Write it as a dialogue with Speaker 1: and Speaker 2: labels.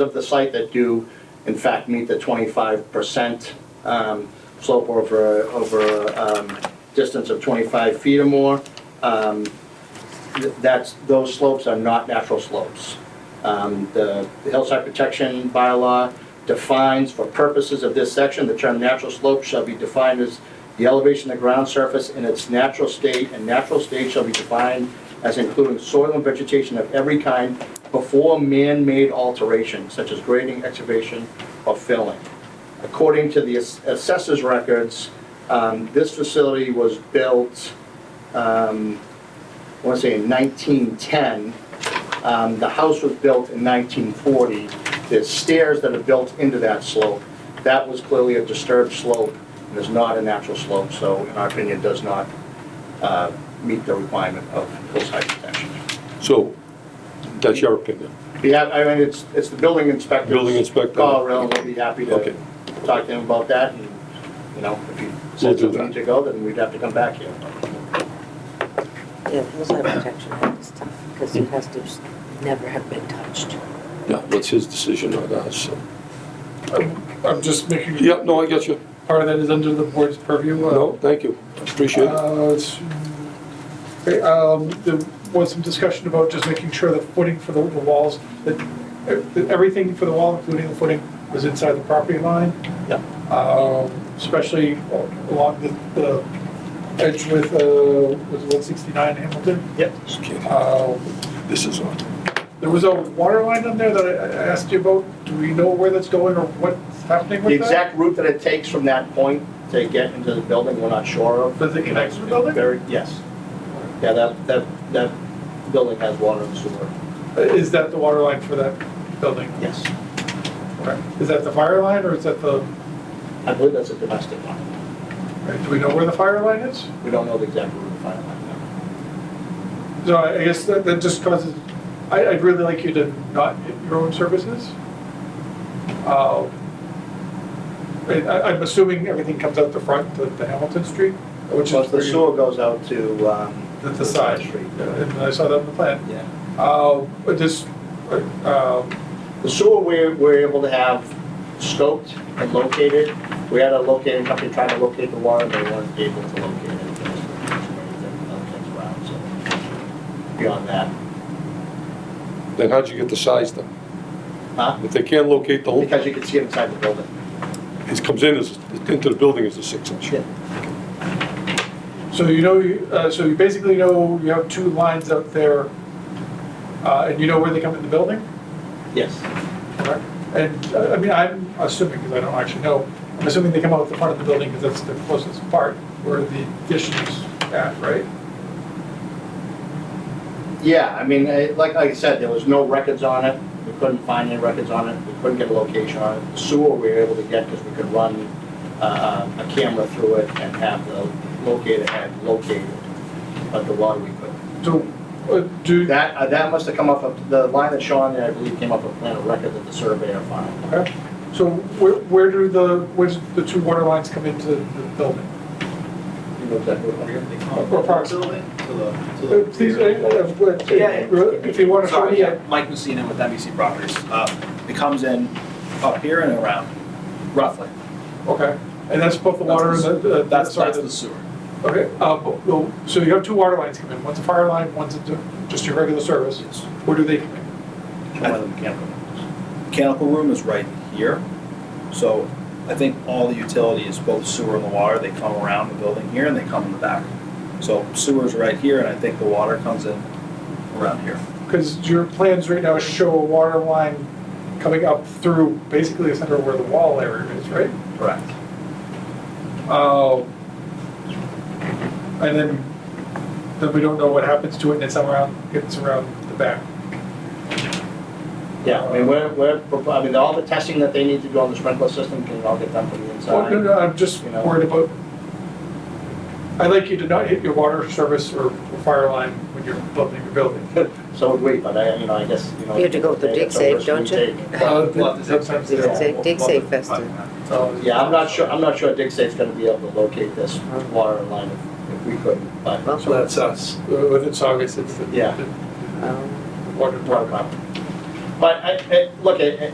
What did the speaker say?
Speaker 1: of the site that do in fact meet the twenty-five percent um, slope over, over um, distance of twenty-five feet or more. Um, th- That's, those slopes are not natural slopes. Um, The the hillside protection bylaw defines, for purposes of this section, the term natural slope shall be defined as the elevation of the ground surface in its natural state, and natural state shall be defined as including soil and vegetation of every kind before man-made alteration, such as grading, excavation, or filling. According to the ass- assessor's records, um, this facility was built, um, I want to say in 1910. Um, The house was built in 1940. There's stairs that are built into that slope. That was clearly a disturbed slope, and is not a natural slope, so in our opinion, does not uh, meet the requirement of hillside protection.
Speaker 2: So, that's your opinion.
Speaker 1: Yeah, I mean, it's, it's the building inspector.
Speaker 2: Building inspector.
Speaker 1: Call around, we'll be happy to
Speaker 2: Okay.
Speaker 1: talk to him about that, and, you know, if you
Speaker 2: We'll
Speaker 1: said
Speaker 2: do
Speaker 1: something
Speaker 2: that.
Speaker 1: to go, then we'd have to come back here.
Speaker 3: Yeah, hillside protection act is tough, because it has to s- never have been touched.
Speaker 2: Yeah, that's his decision, not ours, so.
Speaker 4: I'm just making,
Speaker 2: Yeah, no, I get you.
Speaker 4: part of that is under the board's purview. uh,
Speaker 2: No, thank you. Appreciate it.
Speaker 4: uh, it's- okay, um, There was some discussion about just making sure the footing for the the walls, that that everything for the wall, including the footing, was inside the property line.
Speaker 1: Yeah.
Speaker 4: Um, Especially along the the edge with, uh, was it 169 Hamilton?
Speaker 1: Yep.
Speaker 2: Just kidding.
Speaker 4: Uh,
Speaker 2: This is on.
Speaker 4: There was a water line on there that I I asked you about. Do we know where that's going or what's happening
Speaker 1: The
Speaker 4: with that?
Speaker 1: exact route that it takes from that point to get into the building, we're not sure of.
Speaker 4: Does it connect to the building?
Speaker 1: Very, yes. Yeah, that, that, that building has water and sewer,
Speaker 4: Is that the water line for that building?
Speaker 1: yes.
Speaker 4: Okay. Is that the fire line or is that the,
Speaker 1: I believe that's a domestic line.
Speaker 4: do we know where the fire line is?
Speaker 1: We don't know the exact route of the fire line. no.
Speaker 4: So I I guess that, that just causes, I, I'd really like you to not hit your own services. Uh, I, I- I'm assuming everything comes out the front, the, the Hamilton Street, which
Speaker 1: Well,
Speaker 4: is
Speaker 1: the
Speaker 4: where
Speaker 1: sewer
Speaker 4: you,
Speaker 1: goes out to, um.
Speaker 4: the, the side street, and I saw that on the plan.
Speaker 1: Yeah.
Speaker 4: Uh, but this, uh, um,
Speaker 1: The sewer, we're, we're able to have scoped and located. We had a locating company trying to locate the water, and they weren't able to locate it. Other things around, so Beyond that,
Speaker 2: Then how'd you get the size then?
Speaker 1: huh?
Speaker 2: If they can't locate the whole,
Speaker 1: Because you can see it inside the building.
Speaker 2: it comes in as, into the building as a six inch.
Speaker 1: Yeah.
Speaker 4: So you know, you- uh, so you basically know you have two lines out there, uh, and you know where they come in the building?
Speaker 1: Yes.
Speaker 4: correct? And, uh, I mean, I'm assuming, because I don't actually know, I'm assuming they come out the front of the building, because that's the closest part where the addition is at, right?
Speaker 1: Yeah, I mean, eh, like, like I said, there was no records on it, we couldn't find any records on it, we couldn't get a location on it. The Sewer we were able to get because we could run, uh, a camera through it and have the locator had located, but the water we couldn't.
Speaker 4: So, uh, do,
Speaker 1: That, uh, that must have come off of, the line that Sean, I believe, came off a plan of record that the surveyor found.
Speaker 4: okay. so where, where do the, where's the two water lines come into the building?
Speaker 1: You know exactly what I'm-
Speaker 4: Or park.
Speaker 5: Building to
Speaker 4: Uh,
Speaker 5: the, to
Speaker 4: Please,
Speaker 5: the.
Speaker 4: uh, uh, uh, if you want to show
Speaker 5: Sorry,
Speaker 4: me,
Speaker 5: yeah,
Speaker 4: uh,
Speaker 5: Mike Messina with NBC Properties. Uh, It comes in up here and around, roughly.
Speaker 4: okay, and that's both the water and the, uh,
Speaker 5: That's,
Speaker 4: sorry,
Speaker 5: that's
Speaker 4: the-
Speaker 5: the sewer.
Speaker 4: Okay, uh, but- well, so you have two water lines come in, one's a fire line, one's a d- just your regular service.
Speaker 5: Yes.
Speaker 4: Where do they come in?
Speaker 1: One of the mechanical ones.
Speaker 5: Mechanical room is right here. So I think all the utility is both sewer and the water. They come around the building here and they come in the back. So sewer's right here and I think the water comes in around here.
Speaker 4: Because your plans right now show a water line coming up through basically the center where the wall area is, right?
Speaker 5: Correct.
Speaker 4: Uh, And then, then we don't know what happens to it and it's around, it's around the back.
Speaker 1: Yeah, I mean, we're, we're, I mean, all the testing that they need to do on the sprinkler system can all get done from the
Speaker 4: Well,
Speaker 1: inside.
Speaker 4: no, no, I'm just
Speaker 1: You know.
Speaker 4: worried about, I'd like you to not hit your water service or fire line when you're building your building.
Speaker 1: So would we, but I, you know, I guess, you know.
Speaker 3: You have to go with the dig safe,
Speaker 1: it's a risk we
Speaker 3: don't you?
Speaker 1: take.
Speaker 4: Uh,
Speaker 5: Well, it's-
Speaker 4: sometimes they don't.
Speaker 3: Dig- dig safe festival.
Speaker 4: So,
Speaker 1: Yeah, I'm not sure, I'm not sure dig safe's gonna be able to locate this water line if, if we couldn't, but.
Speaker 3: Well,
Speaker 4: So that's us. With its August, it's the.
Speaker 1: Yeah.
Speaker 4: the-
Speaker 3: um,
Speaker 4: the Water department.
Speaker 1: But I, I, look, I,